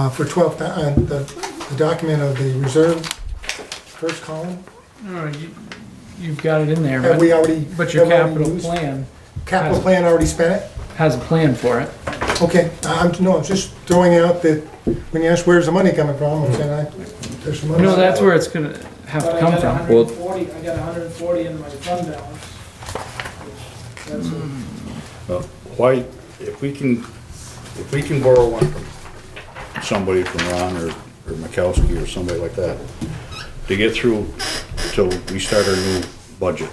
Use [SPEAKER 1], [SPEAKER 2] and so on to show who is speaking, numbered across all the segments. [SPEAKER 1] Uh, For 12, thou- uh, the the document of the reserve, first column,
[SPEAKER 2] All right, you, you've got it in there,
[SPEAKER 1] have we
[SPEAKER 2] but,
[SPEAKER 1] already?
[SPEAKER 2] but your
[SPEAKER 1] have we already
[SPEAKER 2] capital
[SPEAKER 1] used?
[SPEAKER 2] plan
[SPEAKER 1] Capital plan already spent it?
[SPEAKER 2] has a plan for it.
[SPEAKER 1] Okay, I- I'm, no, I'm just throwing out that, when you ask where's the money coming from, I'm saying, I- there's some money.
[SPEAKER 2] No, that's where it's gonna have
[SPEAKER 3] But
[SPEAKER 2] to
[SPEAKER 3] I
[SPEAKER 2] come
[SPEAKER 3] got
[SPEAKER 2] from.
[SPEAKER 3] hundred and forty, I got hundred and forty in my fund balance. which- That's a-
[SPEAKER 4] Uh, Why, if we can, if we can borrow one from somebody from Ron or, or Mikowski or somebody like that, to get through till we start our new budget,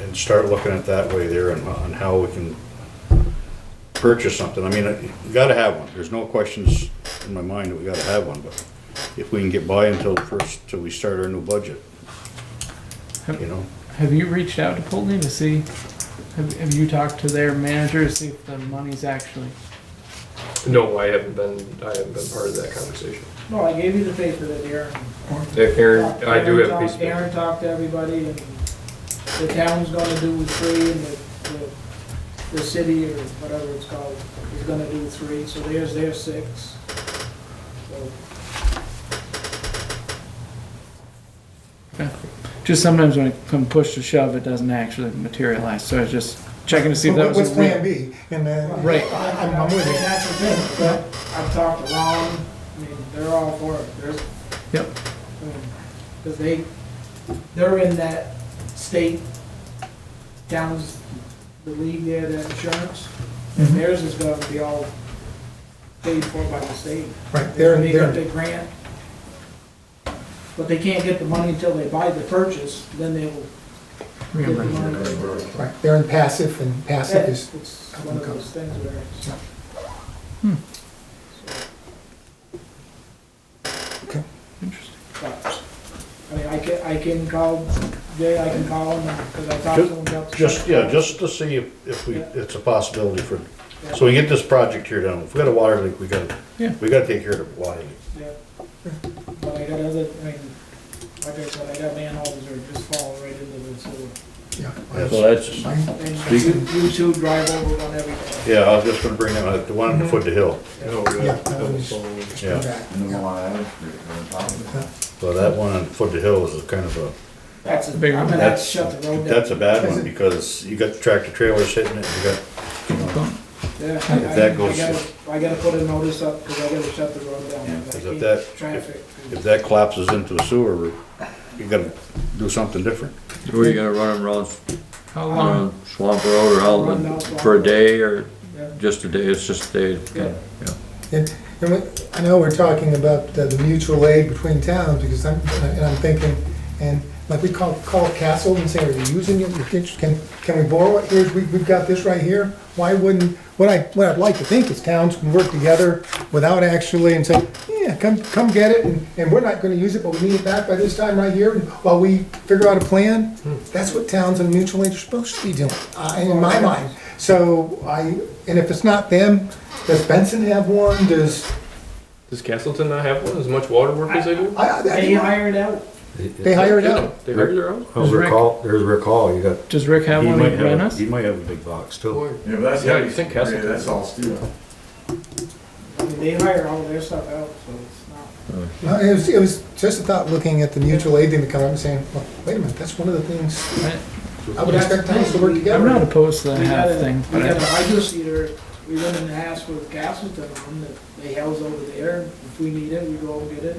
[SPEAKER 4] and start looking at that way there and on how we can purchase something, I mean, uh, you gotta have one, there's no questions in my mind that we gotta have one, but if we can get by until the first, till we start our new budget, you know?
[SPEAKER 2] Have you reached out to Pulteney to see, have, have you talked to their manager to see if the money's actually?
[SPEAKER 5] No, I haven't been, I haven't been part of that conversation.
[SPEAKER 3] No, I gave you the paper that Aaron.
[SPEAKER 5] Aaron, I do have a
[SPEAKER 3] Aaron
[SPEAKER 5] piece of
[SPEAKER 3] talked- Aaron
[SPEAKER 5] paper.
[SPEAKER 3] talked to everybody and the town's gonna do three and the, the, the city or whatever it's called is gonna do three, so there's their six. So,
[SPEAKER 2] Just sometimes when it come push to shove, it doesn't actually materialize, so I was just checking to see if that
[SPEAKER 1] What-
[SPEAKER 2] was. a
[SPEAKER 1] What's
[SPEAKER 2] real-
[SPEAKER 1] plan B? And then.
[SPEAKER 2] Right.
[SPEAKER 1] I'm I'm with
[SPEAKER 3] And
[SPEAKER 1] you.
[SPEAKER 3] that's the thing, but I've talked to Ron, I mean, they're all for it, there's,
[SPEAKER 2] Yep,
[SPEAKER 3] Because they, they're in that state, towns, the league there, that insurance, and theirs is gonna be all paid for by the state.
[SPEAKER 1] Right,
[SPEAKER 3] They're
[SPEAKER 1] they're,
[SPEAKER 3] gonna get the
[SPEAKER 1] they're,
[SPEAKER 3] grant, but they can't get the money until they buy the purchase, then they will get the
[SPEAKER 2] reimbursement.
[SPEAKER 3] money.
[SPEAKER 1] right, they're in passive, and passive
[SPEAKER 3] That-
[SPEAKER 1] is,
[SPEAKER 3] It's one of those things where it's.
[SPEAKER 2] Hmm.
[SPEAKER 1] Okay.
[SPEAKER 2] Interesting.
[SPEAKER 3] But, I mean, I can, I can call Jay, I can call him, because I talked to him about. the-
[SPEAKER 4] Just, yeah, just to see if, if we, it's a possibility for,
[SPEAKER 3] Yeah,
[SPEAKER 4] so we get this project here done, if we got a water leak, we gotta,
[SPEAKER 2] Yeah.
[SPEAKER 4] we gotta take care of the water leak.
[SPEAKER 3] yeah. But I got other, I mean, like I said, I got manholes that are just falling right into the sewer.
[SPEAKER 1] yeah.
[SPEAKER 4] That's-
[SPEAKER 6] that's.
[SPEAKER 1] Fine.
[SPEAKER 3] And
[SPEAKER 4] Speaking-
[SPEAKER 3] you, you two drive over on everything.
[SPEAKER 4] Yeah, I was just gonna bring that, up, the one
[SPEAKER 3] Mm-hmm.
[SPEAKER 4] on the foot to hill,
[SPEAKER 5] No,
[SPEAKER 1] Yeah,
[SPEAKER 5] uh,
[SPEAKER 1] that was-
[SPEAKER 5] so-
[SPEAKER 4] yeah,
[SPEAKER 6] And the one I have, on top of it.
[SPEAKER 4] so that one on foot to hill is a kind of a,
[SPEAKER 3] That's, a- I'm
[SPEAKER 2] Big one.
[SPEAKER 3] gonna have to
[SPEAKER 4] that's,
[SPEAKER 3] shut the road down.
[SPEAKER 4] that's a bad one, because you got tractor trailers hitting it, you got,
[SPEAKER 3] Yeah, I-
[SPEAKER 4] If that
[SPEAKER 3] I-
[SPEAKER 4] goes-
[SPEAKER 3] I gotta, I gotta put a notice up, because I gotta shut the road down.
[SPEAKER 4] Yeah, 'cause
[SPEAKER 3] I
[SPEAKER 4] if
[SPEAKER 3] keep
[SPEAKER 4] that-
[SPEAKER 3] Traffic.
[SPEAKER 4] if that collapses into a sewer, you gotta do something different.
[SPEAKER 6] Where you gonna run them around,
[SPEAKER 2] How long,
[SPEAKER 6] around Swamp Road or Outland for a day or
[SPEAKER 3] Yeah.
[SPEAKER 6] just a day, it's just a day?
[SPEAKER 3] Yeah.
[SPEAKER 1] And, and we- I know we're talking about the the mutual aid between towns, because I'm, and I'm thinking, and like we call, call Castle and say, are you using it? Can, can we borrow it? Here's, we, we've got this right here. Why wouldn't, what I, what I'd like to think is towns can work together without actually, and say, yeah, come, come get it, and, and we're not gonna use it, but we need it back by this time right here, and while we figure out a plan. That's what towns and mutual aid are supposed to be doing, uh, in my mind. So I, and if it's not them, does Benson have one? Does,
[SPEAKER 5] Does Castleton not have one, as much water work as they do?
[SPEAKER 1] I, I,
[SPEAKER 3] They hired out,
[SPEAKER 1] they hire it out.
[SPEAKER 5] They hire their own?
[SPEAKER 2] There's Rick.
[SPEAKER 7] recall, there's recall, you got.
[SPEAKER 2] does Rick have
[SPEAKER 4] He
[SPEAKER 2] one
[SPEAKER 4] might
[SPEAKER 2] that ran
[SPEAKER 4] have,
[SPEAKER 2] us?
[SPEAKER 4] he might have a big box too.
[SPEAKER 6] Yeah, but that's,
[SPEAKER 5] Yeah, you think Castleton-
[SPEAKER 6] that's all steel.
[SPEAKER 3] I mean, they hire all their stuff out, so it's not.
[SPEAKER 1] No, It was, it was just about looking at the mutual aid thing to come up and saying, well, wait a minute, that's one of the things
[SPEAKER 2] I-
[SPEAKER 1] I would expect towns to work
[SPEAKER 2] I'm
[SPEAKER 1] together.
[SPEAKER 2] not opposed to the
[SPEAKER 3] We got
[SPEAKER 2] half
[SPEAKER 3] a,
[SPEAKER 2] thing,
[SPEAKER 3] we
[SPEAKER 2] but
[SPEAKER 3] got a
[SPEAKER 2] I-
[SPEAKER 3] hydro seeder, we went and asked for the Castleton one that they held over there. If we need it, we go and get it.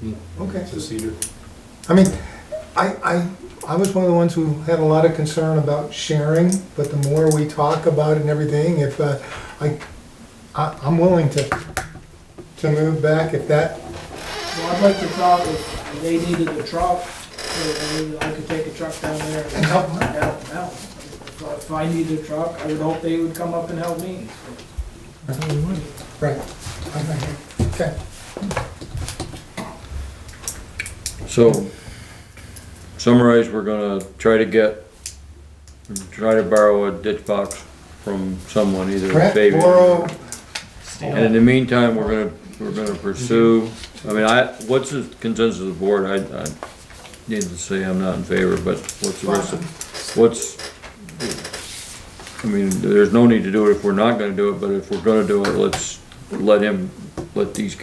[SPEAKER 3] and-
[SPEAKER 1] Okay.
[SPEAKER 5] It's a cedar.
[SPEAKER 1] I mean, I, I, I was one of the ones who had a lot of concern about sharing, but the more we talk about it and everything, if, uh, I, I, I'm willing to, to move back if that,
[SPEAKER 3] So I'd like to talk if they needed a truck, or maybe I could take a truck down there and
[SPEAKER 1] And help
[SPEAKER 3] help
[SPEAKER 1] them
[SPEAKER 3] them out. If I- If I needed a truck, I would hope they would come up and help me.
[SPEAKER 1] right. Okay. Okay.
[SPEAKER 6] So, summarize, we're gonna try to get, try to borrow a ditch box from someone, either
[SPEAKER 1] Brett,
[SPEAKER 6] Fabian.
[SPEAKER 1] Borrow,
[SPEAKER 6] And in the meantime, we're gonna, we're gonna pursue, I mean, I, what's the consensus of the board? I, I need to say I'm not in favor, but what's the rest of, what's, I mean, there's no need to do it if we're not gonna do it, but if we're gonna do it, let's let him let these guys